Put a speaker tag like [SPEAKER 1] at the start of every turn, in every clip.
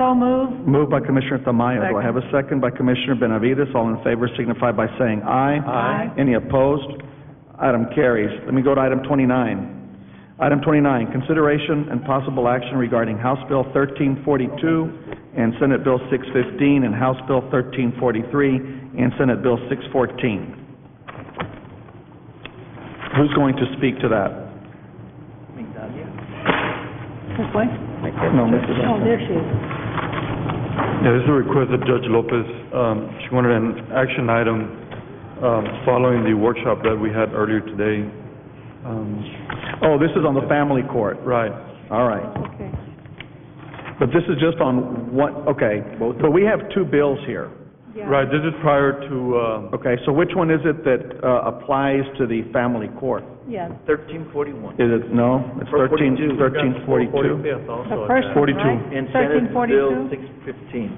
[SPEAKER 1] So moved.
[SPEAKER 2] Moved by Commissioner Tamayo. Do I have a second by Commissioner Benavides? All in favor signify by saying aye.
[SPEAKER 1] Aye.
[SPEAKER 2] Any opposed? Item carries. Let me go to item twenty-nine. Item twenty-nine, consideration and possible action regarding House Bill thirteen forty-two and Senate Bill six fifteen and House Bill thirteen forty-three and Senate Bill six fourteen. Who's going to speak to that?
[SPEAKER 1] This way?
[SPEAKER 2] No, Mrs.
[SPEAKER 1] Oh, there she is.
[SPEAKER 3] Yeah, this is a request of Judge Lopez. Um, She wanted an action item um, following the workshop that we had earlier today. Um,
[SPEAKER 2] Oh, this is on the family court.
[SPEAKER 3] Right.
[SPEAKER 2] All right.
[SPEAKER 1] Okay.
[SPEAKER 2] But this is just on one, okay, but we have two bills here.
[SPEAKER 3] Right, this is prior to, uh,
[SPEAKER 2] Okay, so which one is it that uh, applies to the family court?
[SPEAKER 1] Yeah,
[SPEAKER 4] Thirteen forty-one.
[SPEAKER 2] Is it, no, it's thirteen, thirteen forty-two?
[SPEAKER 4] Forty-fifth
[SPEAKER 1] the
[SPEAKER 4] also.
[SPEAKER 1] first one,
[SPEAKER 2] 42.
[SPEAKER 1] right?
[SPEAKER 4] And Senate
[SPEAKER 1] 1342?
[SPEAKER 4] Bill six fifteen.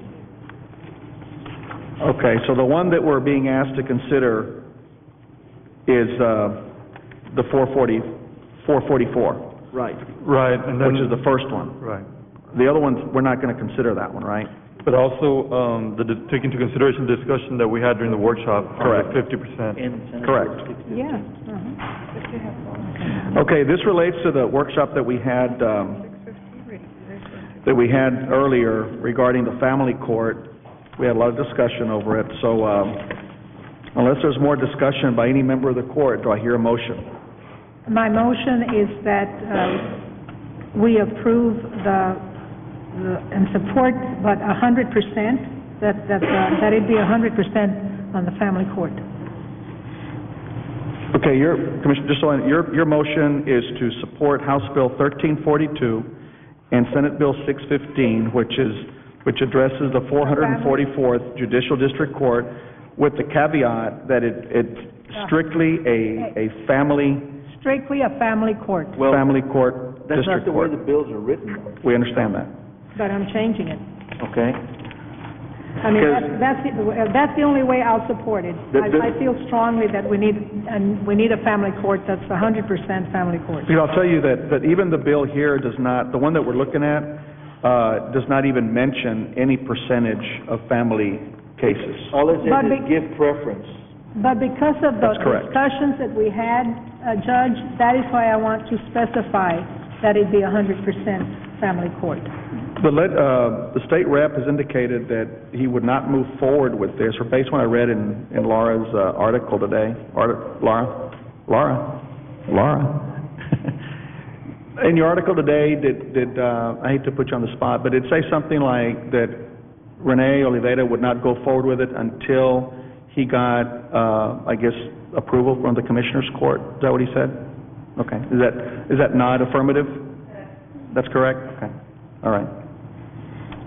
[SPEAKER 2] Okay, so the one that we're being asked to consider is uh, the four forty, four forty-four,
[SPEAKER 4] Right.
[SPEAKER 3] right, and then...
[SPEAKER 2] which is the first one.
[SPEAKER 3] Right.
[SPEAKER 2] The other ones, we're not gonna consider that one, right?
[SPEAKER 3] But also, um, the, dis- take into consideration the discussion that we had during the workshop. on the
[SPEAKER 2] Correct.
[SPEAKER 3] Fifty percent.
[SPEAKER 4] And Senate
[SPEAKER 2] Correct.
[SPEAKER 4] Bill six fifteen.
[SPEAKER 1] Yeah. uh-huh.
[SPEAKER 2] Okay, this relates to the workshop that we had, um, that we had earlier regarding the family court. We had a lot of discussion over it, so, um, unless there's more discussion by any member of the court, do I hear a motion?
[SPEAKER 1] Uh-huh. My motion is that uh, we approve the, the- and support, but a hundred percent, that, that, uh, that it be a hundred percent on the family court.
[SPEAKER 2] Okay, your, Commissioner, just so I, your, your motion is to support House Bill thirteen forty-two and Senate Bill six fifteen, which is, which addresses the four hundred and forty-fourth Judicial District Court with the caveat that it, it's strictly a, a family
[SPEAKER 1] Strictly a family court,
[SPEAKER 2] family court,
[SPEAKER 4] That's not
[SPEAKER 2] district
[SPEAKER 4] the way
[SPEAKER 2] court.
[SPEAKER 4] the bills are written,
[SPEAKER 2] We understand that.
[SPEAKER 1] but I'm changing it.
[SPEAKER 4] okay?
[SPEAKER 1] I mean, that's, that's, the- uh, that's the only way I'll support it.
[SPEAKER 4] The- the-
[SPEAKER 1] I, I feel strongly that we need, and we need a family court that's a hundred percent family court.
[SPEAKER 2] You know, I'll tell you that, that even the bill here does not, the one that we're looking at, uh, does not even mention any percentage of family cases.
[SPEAKER 4] All it
[SPEAKER 1] But
[SPEAKER 4] says is
[SPEAKER 1] be-
[SPEAKER 4] give preference.
[SPEAKER 1] But because of the
[SPEAKER 2] That's correct.
[SPEAKER 1] discussions that we had, uh, Judge, that is why I want to specify that it be a hundred percent family court.
[SPEAKER 2] The let, uh, the state rep has indicated that he would not move forward with this, or based on what I read in, in Laura's, uh, article today, Art, Laura, Laura, Laura. In your article today, did, did, uh, I hate to put you on the spot, but it say something like that Renee Oliveda would not go forward with it until he got, uh, I guess, approval from the commissioner's court? Is that what he said? Okay, is that, is that not affirmative? That's correct? Okay. All right.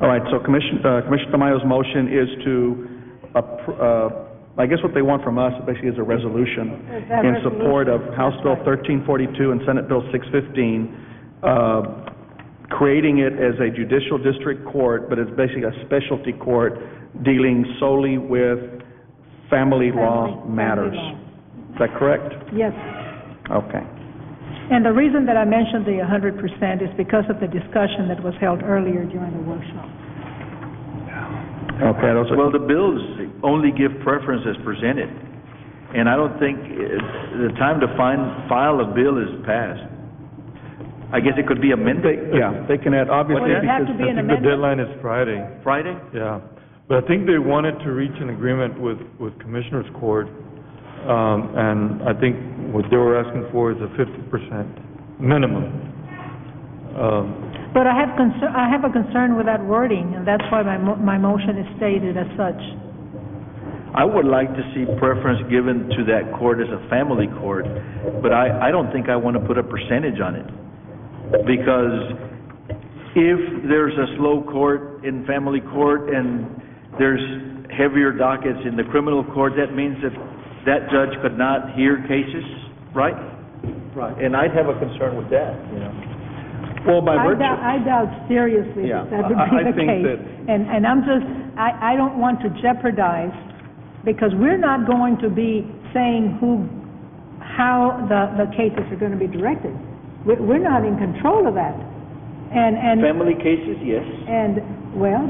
[SPEAKER 2] All right, so Commission, uh, Commissioner Tamayo's motion is to, appro- uh, I guess what they want from us basically is a resolution
[SPEAKER 1] That
[SPEAKER 2] in support of House Bill thirteen forty-two and Senate Bill six fifteen, uh, creating it as a judicial district court, but it's basically a specialty court dealing solely with family law
[SPEAKER 1] Family- family
[SPEAKER 2] matters. Is that correct?
[SPEAKER 1] Yes.
[SPEAKER 2] Okay.
[SPEAKER 1] And the reason that I mentioned the a hundred percent is because of the discussion that was held earlier during the workshop.
[SPEAKER 2] Okay, those are-
[SPEAKER 4] Well, the bills only give preference as presented, and I don't think uh, the time to find, file a bill is past. I guess it could be amended
[SPEAKER 2] yeah, they can add, obviously,
[SPEAKER 1] Well, it'd have
[SPEAKER 2] because
[SPEAKER 1] to be
[SPEAKER 3] I
[SPEAKER 1] an
[SPEAKER 3] think the
[SPEAKER 1] amendment.
[SPEAKER 3] deadline is Friday,
[SPEAKER 4] Friday?
[SPEAKER 3] yeah. But I think they wanted to reach an agreement with, with Commissioners Court, um, and I think what they were asking for is a fifty percent minimum. Um,
[SPEAKER 1] But I have concern, I have a concern with that wording, and that's why my, mo- my motion is stated as such.
[SPEAKER 4] I would like to see preference given to that court as a family court, but I, I don't think I want to put a percentage on it. Because if there's a slow court in family court and there's heavier dockets in the criminal court, that means that that judge could not hear cases, right? Right. And I'd have a concern with that, you know?
[SPEAKER 2] well, by
[SPEAKER 1] I
[SPEAKER 2] virtue...
[SPEAKER 1] doubt, I doubt seriously
[SPEAKER 2] Yeah,
[SPEAKER 1] that that would
[SPEAKER 2] I-
[SPEAKER 1] be
[SPEAKER 2] I
[SPEAKER 1] the
[SPEAKER 2] think
[SPEAKER 1] case.
[SPEAKER 2] that-
[SPEAKER 1] And, and I'm just, I, I don't want to jeopardize, because we're not going to be saying who, how the, the cases are going to be directed. We're, we're not in control of that. And, and,
[SPEAKER 4] Family cases, yes.
[SPEAKER 1] and, well,